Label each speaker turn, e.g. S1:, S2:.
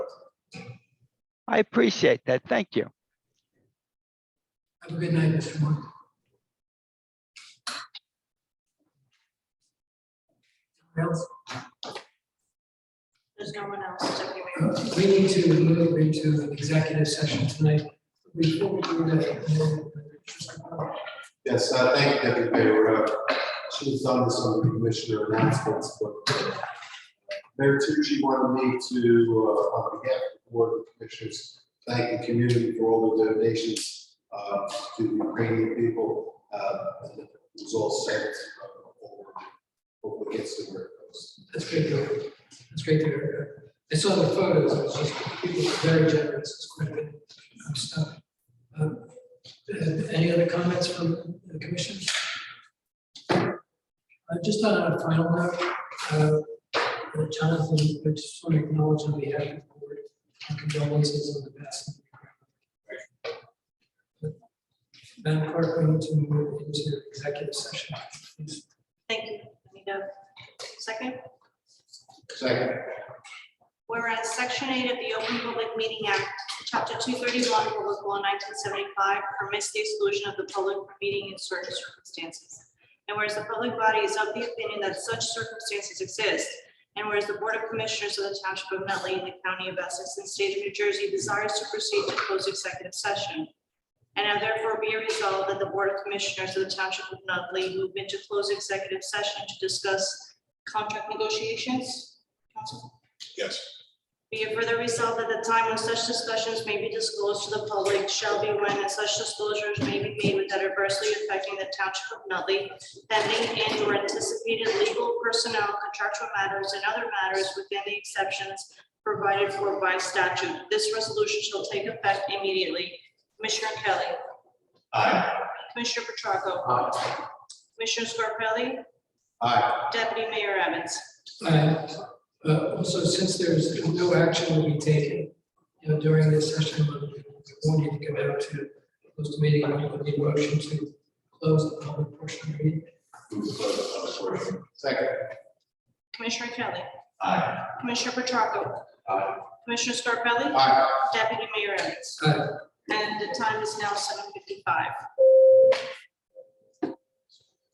S1: I appreciate that. Thank you.
S2: Have a good night, Mr. Moore. Anyone else?
S3: There's no one else. so we wait.
S2: Uh, We need to move into an executive session tonight. Before we do that,
S4: Yes, I thank Deputy Mayor. uh, She was on this on the commissioner announcements, but uh, Mayor Tucci wanted me to, uh, on behalf of the board of commissioners, thank the community for all the donations uh, to the Ukrainian people. uh, and It was all sent. uh, forward. Hopefully gets to where it goes.
S2: that's great, to hear. that's great to hear. I saw the photos, it was just, people were very generous, it's quite a bit of stuff. Um, uh, Any other comments from the commission? Uh, Just on a final note, uh, uh, Jonathan, I just want to acknowledge on behalf of the board, our condolences on the passing. of your grandmother. Madam Clerk, we need to move into executive session. please.
S3: Thank you. I need a second.
S4: Second.
S3: Whereas Section 8 of the Open Public Meeting Act, Chapter 231, Public Law 1975, permits the exclusion of the public from meeting in certain circumstances. And whereas the public body is of the opinion that such circumstances exist, and whereas the Board of Commissioners of the Township of Nutley and the County of Essex and State of New Jersey desires to proceed to close executive session. And now therefore be resolved that the Board of Commissioners of the Township of Nutley move into close executive session to discuss contract negotiations. Council?
S4: Yes.
S3: Be it further resolved that the time when such discussions may be disclosed to the public shall be when and such disclosures may be made without adversely affecting the township of Nutley, pending and or anticipated legal personnel, contractual matters, and other matters within the exceptions provided for by statute. This resolution shall take effect immediately. Commissioner Kelly.
S4: Aye.
S3: Commissioner Petracca.
S4: Aye.
S3: Commissioner Scarpelli.
S4: Aye.
S3: Deputy Mayor Evans.
S2: Uh, uh, Also, since there's no action will be taken, you know, during this session, we won't need to come out to close the meeting, I would need a motion to close the public portion of the meeting.
S4: Move to close the public portion. Second.
S3: Commissioner Kelly.
S4: Aye.
S3: Commissioner Petracca.
S4: Aye.
S3: Commissioner Scarpelli.
S4: Aye.
S3: Deputy Mayor Evans.
S2: Aye.
S3: And the time is now seven fifty-five.